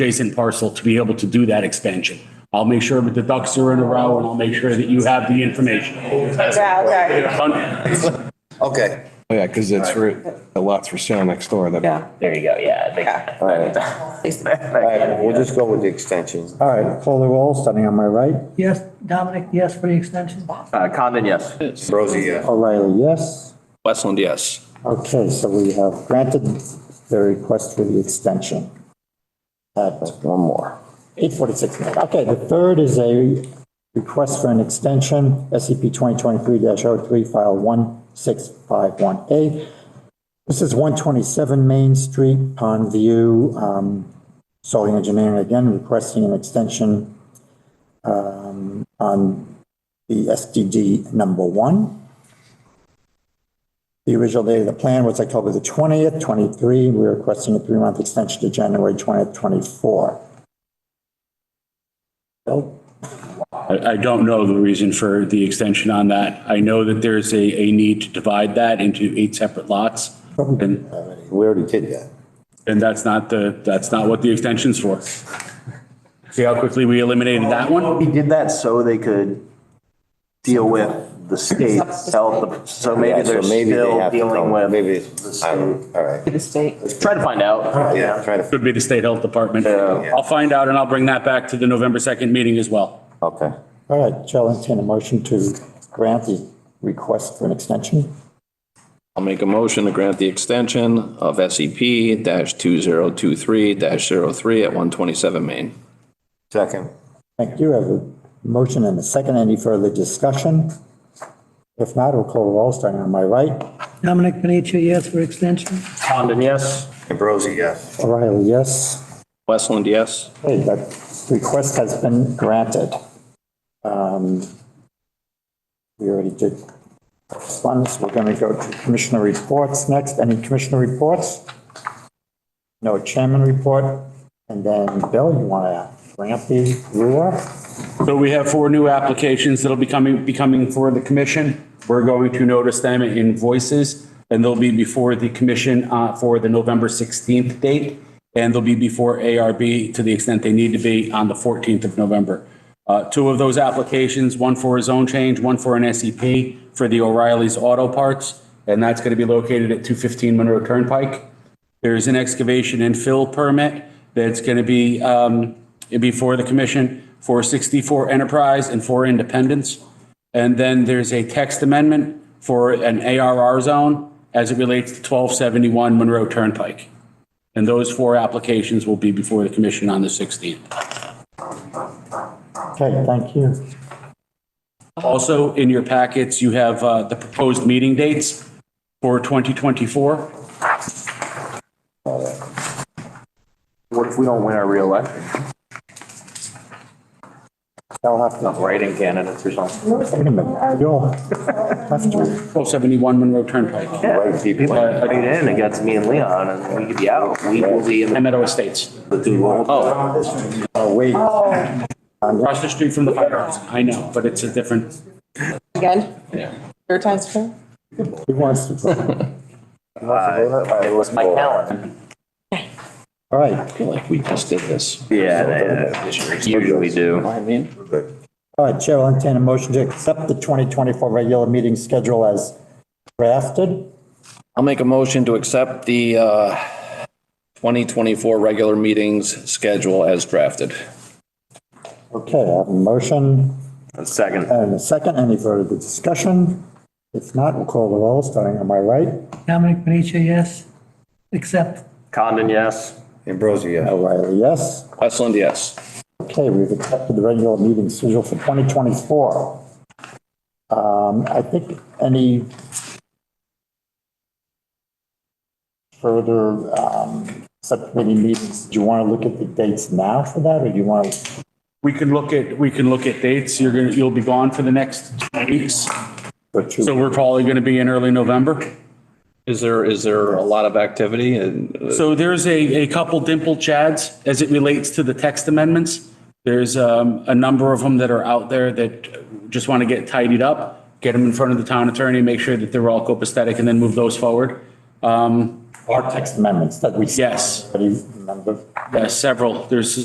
adjacent parcel to be able to do that expansion. I'll make sure that the ducks are in a row and I'll make sure that you have the information. Yeah, okay. Okay. Oh, yeah, because it's, for- the lot's for sale next door. that- Yeah. There you go, yeah. they- Yeah. All right. All right, we'll just go with the extension. All right, Foley Wall standing on my right. Yes, Dominic, yes for the extension? Uh, Condon, yes. Rosie, yes. O'Reilly, yes. Westland, yes. Okay, so we have granted the request for the extension. Uh, but One more. 846. Okay, the third is a request for an extension, E SCP 2023-03, File 16518. This is 127 Main Street, Pond View. um, Solely engineering again requesting an extension um, on the SDD number one. The original date of the plan was October the 20th, 23. We're requesting a three-month extension to January 20th, 24. Bill? I, I don't know the reason for the extension on that. I know that there's a, a need to divide that into eight separate lots. And, We already did that. and that's not the, that's not what the extension's for. See how quickly we eliminated that one? He did that so they could deal with the state, sell the, so maybe Yeah, so they're maybe they still have to dealing come- with, Maybe, it's- I don't, all right. The state. try to find out. Yeah, try to, Could be the state health department. I'll find out and I'll bring that back to the November 2nd meeting as well. okay. All right, shall entertain a motion to grant the request for an extension. I'll make a motion to grant the extension of SCP dash two zero two three dash zero three at one twenty-seven Main. Second. Thank you. I have a motion and a second. Any further discussion? If not, we'll call the roll, starting on my right. Dominic Panitia, yes for extension? Condon, yes. Ambrosi, yes. O'Reilly, yes. Westland, yes. Okay, that request has been granted. Um, We already did correspondence. We're going to go to commissioner reports next. Any commissioner reports? No chairman report. And then, Bill, you want to bring up the ruler? So we have four new applications that'll be coming, be coming for the commission. We're going to notice them in voices and they'll be before the commission uh, for the November 16th date. And they'll be before ARB to the extent they need to be on the 14th of November. Uh, Two of those applications, one for a zone change, one for an SEP for the O'Reilly's Auto Parts. And that's going to be located at 215 Monroe Turnpike. There's an excavation and fill permit that's going to be um, before the commission for 64 Enterprise and for Independence. And then there's a text amendment for an ARR zone as it relates to 1271 Monroe Turnpike. And those four applications will be before the commission on the 16th. Okay, thank you. Also, in your packets, you have uh, the proposed meeting dates for 2024. What if we don't win our reelection? I'll have to, Not writing candidates or something. wait a minute. You'll have to 1271 Monroe Turnpike, Right people. But I mean, in against me and Leon, and we could be out. We will be in the Meadow Estates, Oh, uh, wait. across the street from the firehouse. I know, but it's a different. Again? Yeah. Third time's fair? Who wants to? vote? it was my calendar. All right, I feel like we just did this. Yeah, usually do. I mean. all right, Chair will entertain a motion to accept the 2024 regular meeting schedule as drafted. I'll make a motion to accept the uh, 2024 regular meetings schedule as drafted. Okay, I have a motion A second. and a second. Any further discussion? If not, we'll call the roll, starting on my right. Dominic Panitia, yes. Except, Condon, yes. Ambrosi, yes. O'Reilly, yes. Westland, yes. Okay, we've accepted the regular meeting schedule for 2024. Um, I think any further um, subcommittee meetings, do you want to look at the dates now for that, or do you want to? We can look at, we can look at dates. You're going to, you'll be gone for the next two weeks. So we're probably going to be in early November. Is there, is there a lot of activity and? uh, So there's a, a couple dimple chads as it relates to the text amendments. There's um, a number of them that are out there that just want to get tidied up, get them in front of the town attorney, make sure that they're all copacetic and then move those forward. Um, Our text amendments that we. Yes. Already Remember? yeah, several, there's